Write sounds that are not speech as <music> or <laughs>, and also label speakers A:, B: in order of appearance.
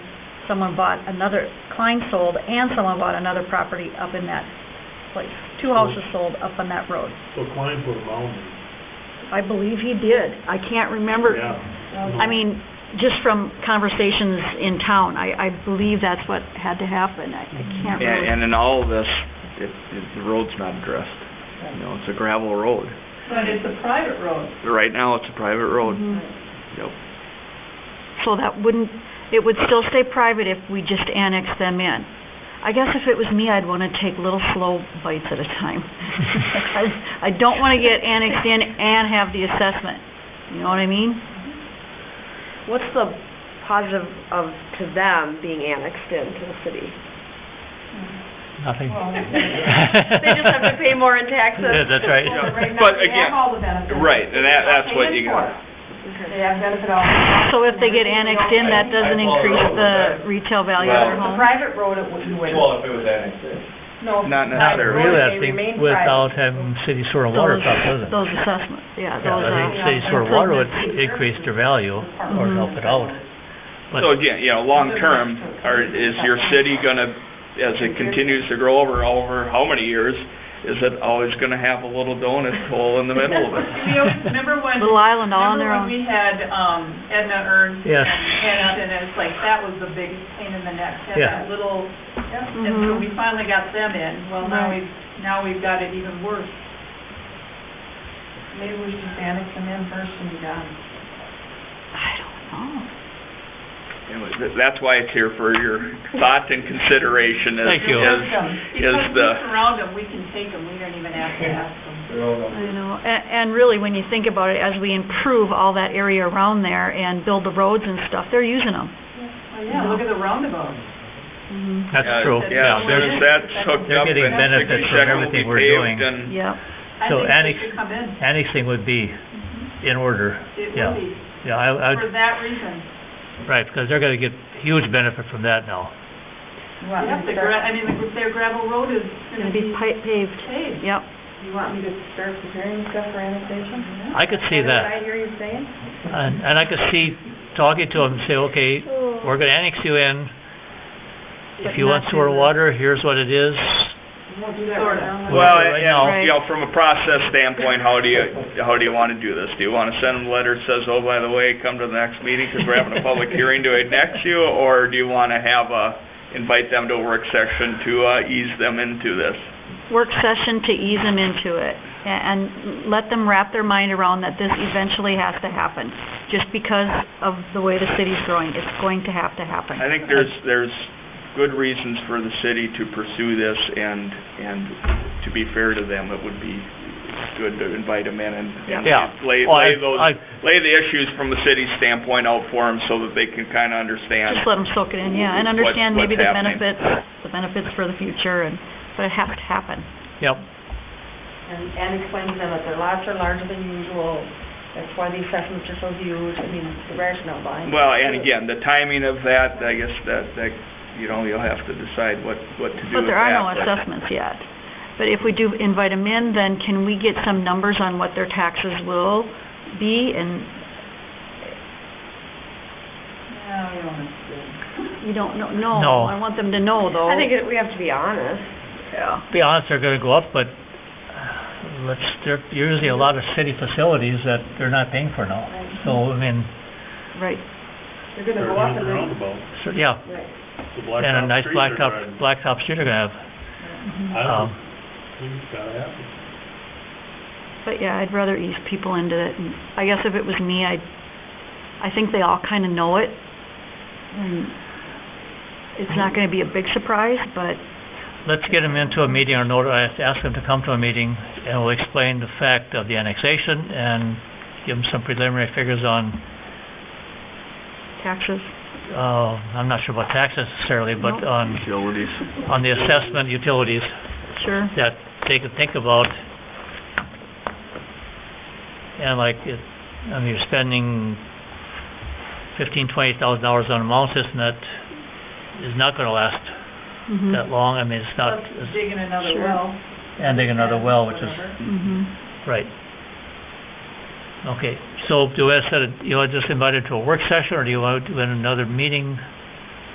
A: someone bought another, Klein sold, and someone bought another property up in that place. Two houses sold up on that road.
B: So Klein put a mound in.
A: I believe he did. I can't remember.
B: Yeah.
A: I mean, just from conversations in town, I, I believe that's what had to happen. I I can't
C: And,
D: Uh-huh.
C: and
A: really...
C: in all of this, it, it, the road's not addressed. You know, it's a gravel road.
D: But it's a private road. Mm-hmm.
C: Right now, it's a private road.
A: Mhm.
D: <laughs>
C: Yep.
A: So that wouldn't, it would still stay private if we just annexed them in. I guess if it was me, I'd want to take little slow bites at a time. Because I don't want to get annexed in and have the assessment. You know what I mean?
E: What's the positive of, to them being annexed into the city?
F: Nothing. <laughs>
D: Well,
E: They just have to pay more in taxes?
F: Yeah, that's right.
D: Well, right now,
C: But
D: they
C: again,
D: have all the benefits.
C: Right, and that, that's what you
D: They're paying
C: got.
D: for it. They have benefit all.
A: So if they get annexed in, that doesn't increase the retail value of their
D: It's a
A: home?
D: private road, it wouldn't win.
G: Well, if it was annexed in.
D: No.
C: Not
D: private road,
C: necessarily.
D: they
F: Really, I think
D: remain private.
F: without having city sewer and water
A: Those-
F: stuff, doesn't it?
A: Those assessments, yeah,
D: Uh-huh.
F: Yeah,
A: those,
F: I think
A: uh,
F: city sewer and water would
D: improvements.
F: increase their value or
A: Mhm.
F: help it out. But
C: So again, you know, long-term, are, is your city gonna, as it continues to grow over, over how many years, is it always gonna have a little donut hole in the middle of it?
D: <laughs>
H: We always, remember
A: <laughs>
H: when,
A: little island all on their
H: remember
A: own.
H: when we had um Edna Ernst
F: Yes.
H: and Hennepin, and it's like, that was the biggest pain in the neck, had
F: Yeah.
H: that little, and
A: Mhm.
H: so we finally got them in, well, now
A: Right.
H: we've, now we've got it even worse.
D: Maybe we should annex them in first and be done.
A: I don't know.
C: Anyway, th- That's why it's here for your thought and consideration is,
F: Thank you.
C: is, is
H: Because we
C: the,
H: surround them, we can take them, we don't even have to ask them.
G: They're all done.
A: You know, a- and really, when you think about it, as we improve all that area around there and build the roads and stuff, they're using them.
H: Well, yeah, look at the roundabout.
A: Mm-hmm.
F: that's
C: Yeah,
F: true,
C: yeah, as
F: yeah.
C: soon as that's hooked
F: They're
C: up
F: getting
C: and the
F: benefits from
C: section will
F: everything
C: be
F: we're doing.
C: paved and
A: Yep.
H: I
F: So
H: think
F: annex-
H: they should come in,
F: Annexing would be in order,
H: it will
F: yeah.
H: be,
F: Yeah, I, I,
H: for that reason.
F: right, because they're gonna get huge benefit from that now.
D: Well,
H: Yep, the gra, I mean, the- their gravel road is
A: Going to
H: gonna
A: be
H: be
A: pi- paved.
H: paved.
A: Yep.
D: You want me to start preparing stuff for annexation?
F: I could see
D: Is
F: that,
D: what I hear you saying?
F: and, and I could see talking to them and say, okay, we're gonna annex you in.
A: But
F: If you want
A: not do
F: sewer and
A: that.
F: water, here's what it is.
D: We'll do that
H: Sort
D: right now.
H: of.
C: Well,
F: Right
C: you know,
A: now.
C: you know, from a process standpoint, how do you, how do you want to do this? Do you want to send them a letter that says, oh, by the way, come to the next meeting because we're having a public <laughs> hearing to annex you? Or do you want to have a, invite them to a work session to uh, ease them into this?
A: Work session to ease them into it a- and let them wrap their mind around that this eventually has to happen. Just because of the way the city's growing, it's going to have to happen.
C: I think there's, there's good reasons for the city to pursue this and, and to be fair to them, it would be good to invite them in and and
F: Yeah.
C: lay,
F: Oh, I-
C: lay those,
F: I-
C: lay the issues from the city standpoint out for them so that they can kind of understand.
A: Just let them soak it in, yeah, and
C: What-
A: understand maybe the
C: what's happening.
A: benefits, the benefits for the future and, but it has to happen.
F: Yep,
E: And, and explain to them that their lots are larger than usual, that's why the assessments are so huge, I mean, the rationale behind it.
C: Well, and again, the timing of that, I guess that, that, you know, you'll have to decide what, what to do
A: But
C: with
A: there
C: that.
A: are no assessments yet. But if we do invite them in, then can we get some numbers on what their taxes will be? And
H: No, we don't have to.
A: you don't know, no.
F: No.
A: I want them to know, though.
E: I think it- we have to be honest.
A: Yeah.
F: be honest, they're gonna go up, but uh, let's, there are usually a lot of city facilities that they're not paying for now. So, I mean,
A: Right.
D: You're gonna
B: They're
D: go up
B: doing
D: and
B: the
D: then
B: roundabout,
F: so, yeah,
B: the blacktop
F: and a nice
B: street they're
F: blacktop,
B: driving.
F: blacktop street they're gonna have.
B: I
F: Um,
B: don't, think it's gotta happen.
A: But yeah, I'd rather ease people into it. And I guess if it was me, I, I think they all kind of know it. And it's not going to be a big surprise, but
F: Let's get them into a meeting or note, I have to ask them to come to a meeting, and we'll explain the fact of the annexation and give them some preliminary figures on,
A: taxes.
F: uh, I'm not sure about taxes necessarily, but
A: Nope.
F: on,
C: Utilities.
F: on the assessment utilities
A: Sure.
F: that they could think about. And like, if, I mean, you're spending fifteen, twenty thousand dollars on a mound system that is not gonna last
A: Mhm.
F: that long, I mean, it's not,
H: Plus digging another
A: Sure.
H: well.
F: and digging another well, which is
H: Whatever.
A: Mhm.
F: Right. Okay, so do I set, a- you want to just invite it to a work session, or do you want to do it in another meeting?